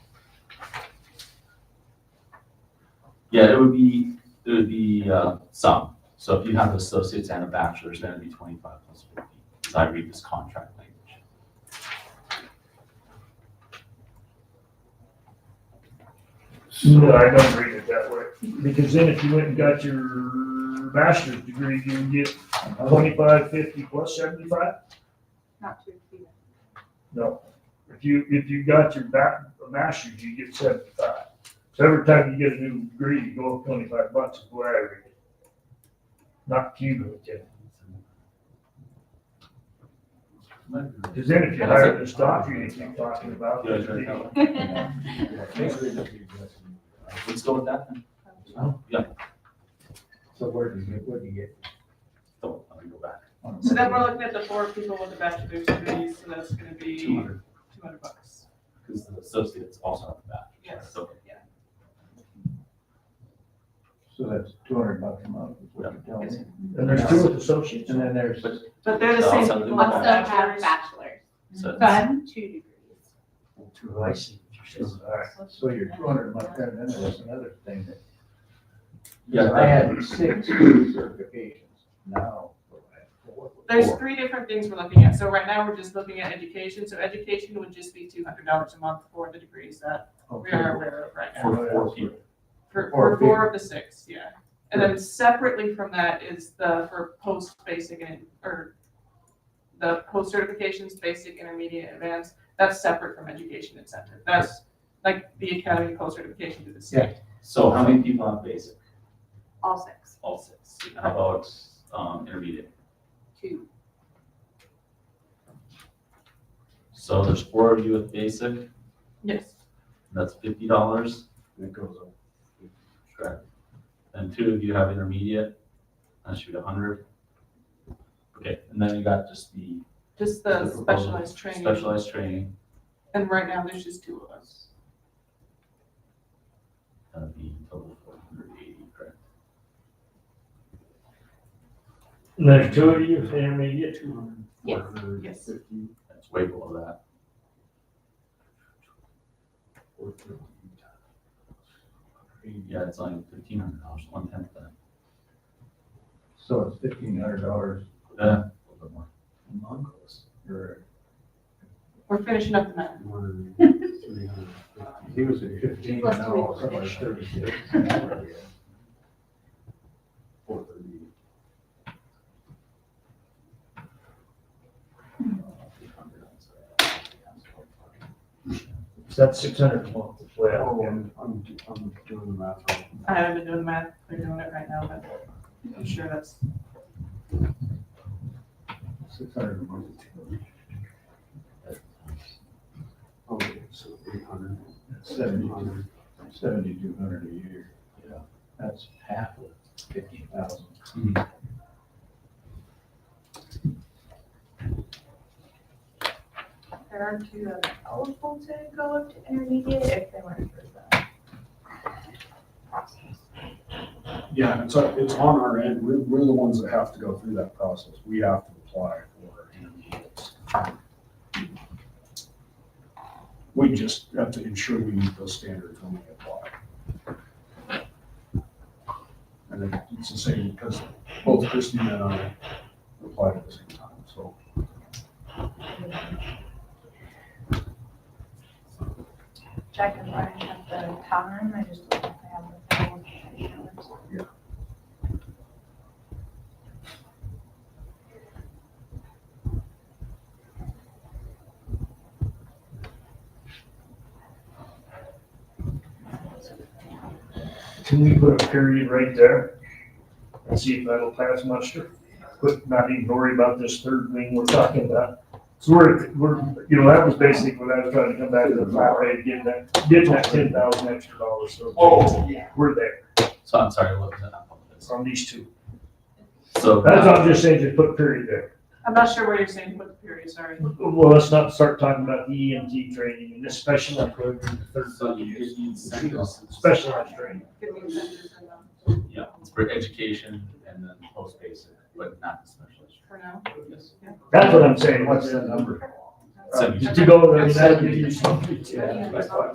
Yeah, it would be, it would be uh, some. So if you have associates and a bachelor's, then it'd be 25 plus 50, as I read this contract language. No, I don't read it that way, because then if you went and got your master's degree, you would get twenty-five, fifty plus seventy-five? Not too few. No. If you, if you got your back, a master's, you get seventy-five. So every time you get a new degree, you go up twenty-five bucks, is the way I read it. Not cumulative, because then if you hire this doctor you keep talking about, Yeah, sure. you Let's go with that then. Yeah. So where do you, what do you get? Don't, let me go back. So then we're looking at the four people with a bachelor's degree, so that's gonna be two 200, hundred bucks. because the associates also have a bachelor's. Yes. So So that's two hundred bucks a month, is what you're telling me. And there's two with associates. And then there's, But they're the So same also people do with that. Also have bachelors. bachelor's, so it's- but two degrees. two licenses, all right. So you're two hundred a month, and then there's another thing that. Yeah. I had six certifications, now I have four. There's three different things we're looking at. So right now, we're just looking at education. So education would just be two hundred dollars a month for the degrees that we Okay. are aware of right now. For four people. For, Or for four of the six, yeah. And then separately from that is the, for post-basic and, or the post-certifications, basic, intermediate, advanced, that's separate from education incentive. That's like the academy post-certification to the state. So how many people have basic? All six, All six. How about um, intermediate? two. So there's four of you with basic, Yes. that's $50. It goes up. Correct. And two of you have intermediate, that should be a hundred. Okay, and then you got just the Just the The proposal. specialized training. specialized training, And right now, there's just two of us. that'd be uh, total four hundred eighty, correct? And there's two of you, and you get two hundred. Yes, Mm-hmm. yes. That's way below that. Yeah, it's only fifteen hundred dollars, one tenth that. So it's fifteen hundred dollars Yeah, a little bit more. a month, or We're finishing up the math. he was at fifteen, Plus now three. all of a sudden it's thirty-six. Uh, That's six hundred a month, is the way I look at it. I'm, I'm I'm doing the math wrong. I haven't been doing the math. They're doing it right now, but I'm sure that's, Six hundred a month. Okay, Oh, so eight hundred, seven Seventy-two hundred. seventy-two hundred a year. Yeah. That's half of fifty thousand. There are two that are eligible to go up to intermediate if they weren't for the process. Yeah, it's, on- it's on our end. We're, we're the ones that have to go through that process. We have to apply for intermediates. We just have to ensure we meet those standards when we apply. And it- it's the same because both Christina and I applied at the same time, so. Jack and Brian have the time, I just don't think they have the time. Can we put a period right there? And see if that'll pass muster? But not even worry about this third thing we're talking about. So we're, we're, you know, that was basically what I was trying to come back to the flat rate, getting that, getting that ten thousand extra dollars, so. Oh, We're there So I'm sorry, what was that? I apologize. on these two. So. uh, That's what I'm just saying, just put a period there. I'm not sure where you're saying put the period, sorry. Well, let's not start talking about the EMT training and this specialized program, the third So one you you get use. the incentives. Specialized training. Give me incentives and, um, Yeah, it's for education and then post-basic, but not the specialized. for now. Yes. That's what I'm saying, What's what's, the number? to go there, that Seventy. Yeah, that's what-